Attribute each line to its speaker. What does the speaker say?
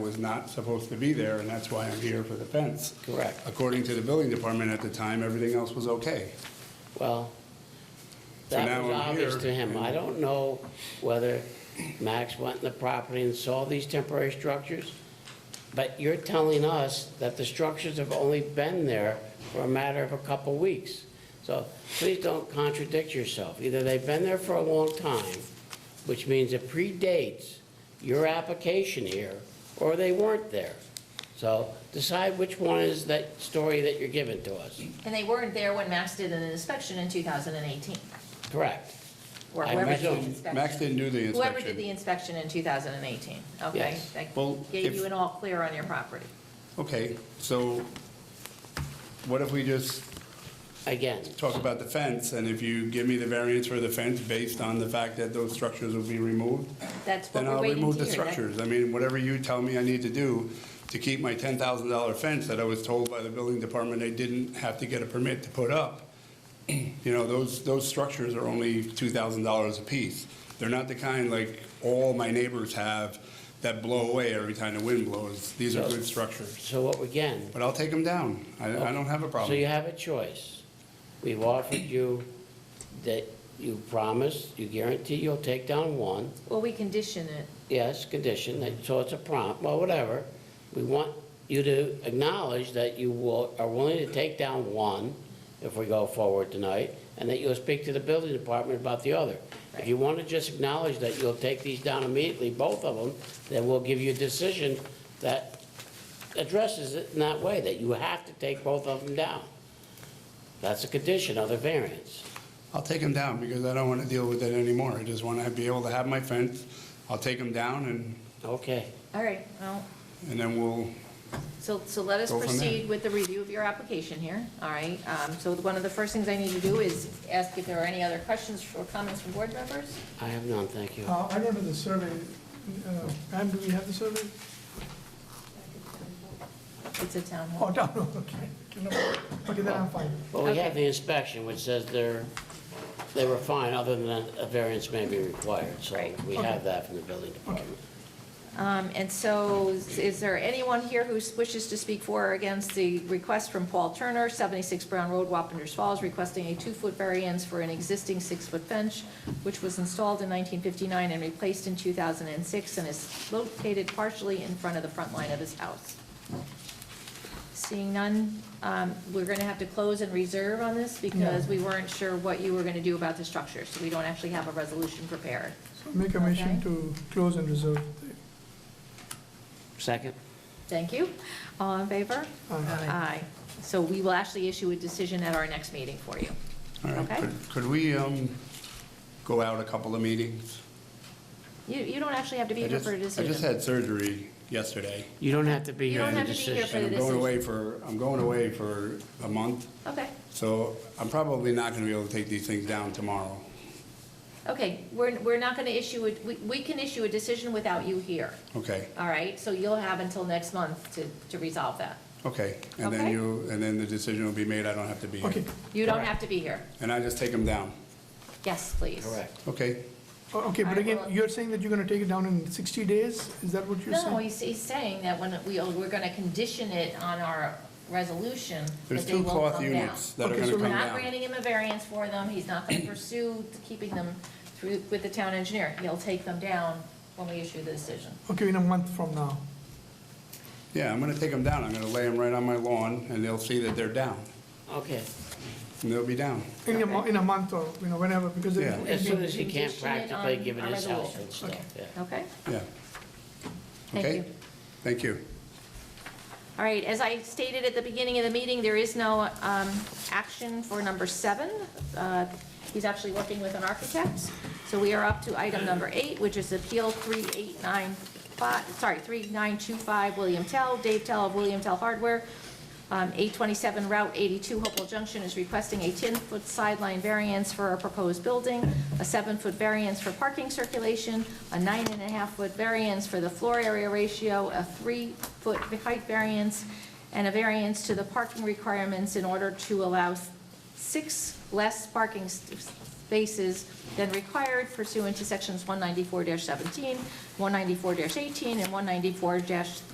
Speaker 1: was not supposed to be there, and that's why I'm here for the fence.
Speaker 2: Correct.
Speaker 1: According to the building department at the time, everything else was okay.
Speaker 2: Well,
Speaker 1: So
Speaker 2: that
Speaker 1: now
Speaker 2: was
Speaker 1: I'm
Speaker 2: obvious
Speaker 1: here
Speaker 2: to him.
Speaker 1: and-
Speaker 2: I don't know whether Max went in the property and saw these temporary structures, but you're telling us that the structures have only been there for a matter of a couple weeks. So please don't contradict yourself. Either they've been there for a long time, which means it predates your application here, or they weren't there. So decide which one is that story that you're giving to us.
Speaker 3: And they weren't there when Max did an inspection in 2018,
Speaker 2: Correct?
Speaker 3: or
Speaker 2: I
Speaker 3: whoever did the
Speaker 2: presume.
Speaker 3: inspection.
Speaker 1: Max didn't do the
Speaker 3: Whoever did the
Speaker 1: inspection.
Speaker 3: inspection in 2018, okay?
Speaker 2: Yes.
Speaker 3: That
Speaker 1: Well,
Speaker 3: gave
Speaker 1: if-
Speaker 3: you an all clear on your property.
Speaker 1: Okay, so what if we just
Speaker 2: Again,
Speaker 1: talk about the fence, and if you give me the variance for the fence based on the fact that those structures will be removed,
Speaker 3: That's what
Speaker 1: then
Speaker 3: we're
Speaker 1: I'll
Speaker 3: waiting to hear.
Speaker 1: remove the
Speaker 3: That-
Speaker 1: structures. I mean, whatever you tell me I need to do to keep my ten thousand dollar fence that I was told by the building department they didn't have to get a permit to put up. You know, those, those structures are only two thousand dollars apiece. They're not the kind like all my neighbors have that blow away every time the wind blows. These are good structures.
Speaker 2: so what, again,
Speaker 1: But I'll take them down. I, I don't have a
Speaker 2: So you
Speaker 1: problem.
Speaker 2: have a choice. We've offered you that you promise, you guarantee you'll take down one,
Speaker 3: Well, we condition it.
Speaker 2: yes, condition, that, so it's a prompt, well, whatever. We want you to acknowledge that you will, are willing to take down one if we go forward tonight, and that you'll speak to the building department about the other. If you want to just acknowledge that you'll take these down immediately, both of them, then we'll give you a decision that addresses it in that way, that you have to take both of them down. That's a condition of the variance.
Speaker 1: I'll take them down because I don't want to deal with it anymore. I just want to be able to have my fence. I'll take them down and,
Speaker 2: Okay,
Speaker 3: All right, well,
Speaker 1: and then we'll
Speaker 3: so, so let us
Speaker 1: Go from there.
Speaker 3: proceed with the review of your application here, all right? Um, So one of the first things I need to do is ask if there are any other questions or comments from board members?
Speaker 2: I have none, thank you.
Speaker 4: Uh, I remember the survey, uh, Pam, do we have the survey?
Speaker 3: It's a town
Speaker 4: Oh,
Speaker 3: hall.
Speaker 4: no, Oh. no, okay. Okay, then I'm fine.
Speaker 2: Well, we have
Speaker 3: Okay.
Speaker 2: the inspection, which says they're, they were fine, other than a variance may be required, so
Speaker 3: Right.
Speaker 2: we have that from the building department.
Speaker 3: Um, And so, is- is there anyone here who wishes to speak for or against the request from Paul Turner, 76 Brown Road, Wapenders Falls, requesting a two-foot variance for an existing six-foot bench, which was installed in 1959 and replaced in 2006, and is located partially in front of the front line of his house? Seeing none, um, we're going to have to close and reserve on this because we weren't sure what you were going to do about the structure, so we don't actually have a resolution prepared.
Speaker 4: So Make a motion
Speaker 3: Okay.
Speaker 4: to close and reserve.
Speaker 2: Second?
Speaker 3: Thank you. All in favor?
Speaker 4: Aye.
Speaker 3: Aye. So we will actually issue a decision at our next meeting for you.
Speaker 1: All right,
Speaker 3: Okay.
Speaker 1: could- could we um, go out a couple of meetings?
Speaker 3: You, you don't actually have to be
Speaker 1: I
Speaker 3: here
Speaker 1: just-
Speaker 3: for a
Speaker 1: I just
Speaker 3: decision.
Speaker 1: had surgery yesterday,
Speaker 2: You don't have to be
Speaker 3: You
Speaker 2: here
Speaker 3: don't
Speaker 2: for the
Speaker 3: have to be here
Speaker 2: decision.
Speaker 3: for
Speaker 1: and
Speaker 3: the
Speaker 1: I'm going
Speaker 3: decision.
Speaker 1: away for, I'm going away for a month,
Speaker 3: Okay,
Speaker 1: so I'm probably not going to be able to take these things down tomorrow.
Speaker 3: okay, we're, we're not going to issue, a- we, we can issue a decision without you here,
Speaker 1: Okay,
Speaker 3: all right? So you'll have until next month to, to resolve that.
Speaker 1: okay. And then
Speaker 3: Okay.
Speaker 1: you, and then the decision will be made, I don't have to be
Speaker 4: Okay,
Speaker 1: here.
Speaker 3: You don't
Speaker 2: Correct.
Speaker 3: have to be here.
Speaker 1: And I just take them down.
Speaker 3: Yes, please.
Speaker 2: Correct.
Speaker 1: Okay,
Speaker 4: O- Uh, okay, but
Speaker 3: Alright,
Speaker 4: again,
Speaker 3: well-
Speaker 4: you're saying that you're gonna take it down in 60 days? Is that what you're
Speaker 3: No,
Speaker 4: saying?
Speaker 3: he's, he's saying that when we, we're going to condition it on our resolution, that
Speaker 1: there's
Speaker 3: they
Speaker 1: two
Speaker 3: will
Speaker 1: cloth
Speaker 3: come down.
Speaker 1: units that are
Speaker 4: Okay,
Speaker 1: going to
Speaker 4: so
Speaker 1: come
Speaker 3: We're not
Speaker 1: down.
Speaker 3: granting him a variance for them, he's not gonna pursue keeping them through, with the town engineer. He'll take them down when we issue the decision.
Speaker 4: Okay, in a month from now.
Speaker 1: Yeah, I'm going to take them down, I'm going to lay them right on my lawn, and they'll see that they're down,
Speaker 2: Okay,
Speaker 1: and they'll be down.
Speaker 4: In a, mo- in a month or, you know, whenever, because. it-
Speaker 1: Yeah.
Speaker 4: it'll
Speaker 2: as
Speaker 4: be-
Speaker 2: soon as he can
Speaker 3: Condition it
Speaker 2: practically,
Speaker 3: on
Speaker 2: given
Speaker 3: our
Speaker 2: his health
Speaker 3: resolution.
Speaker 2: and stuff, yeah.
Speaker 3: Okay?
Speaker 1: Yeah.
Speaker 3: Thank
Speaker 1: Okay?
Speaker 3: you.
Speaker 1: Thank you.
Speaker 3: All right, as I stated at the beginning of the meeting, there is no um, action for number seven. Uh, He's actually working with an architect. So we are up to item number eight, which is Appeal 3895, sorry, 3925 William Tell, Dave Tell of William Tell Hardware. Um, 827 Route 82 Hopewell Junction is requesting a 10-foot sideline variance for a proposed building, a 7-foot variance for parking circulation, a 9.5-foot variance for the floor area ratio, a 3-foot height variance, and a variance to the parking requirements in order to allow s- six less parking s- spaces than required pursuant to Sections 194-17, 194-18, and 194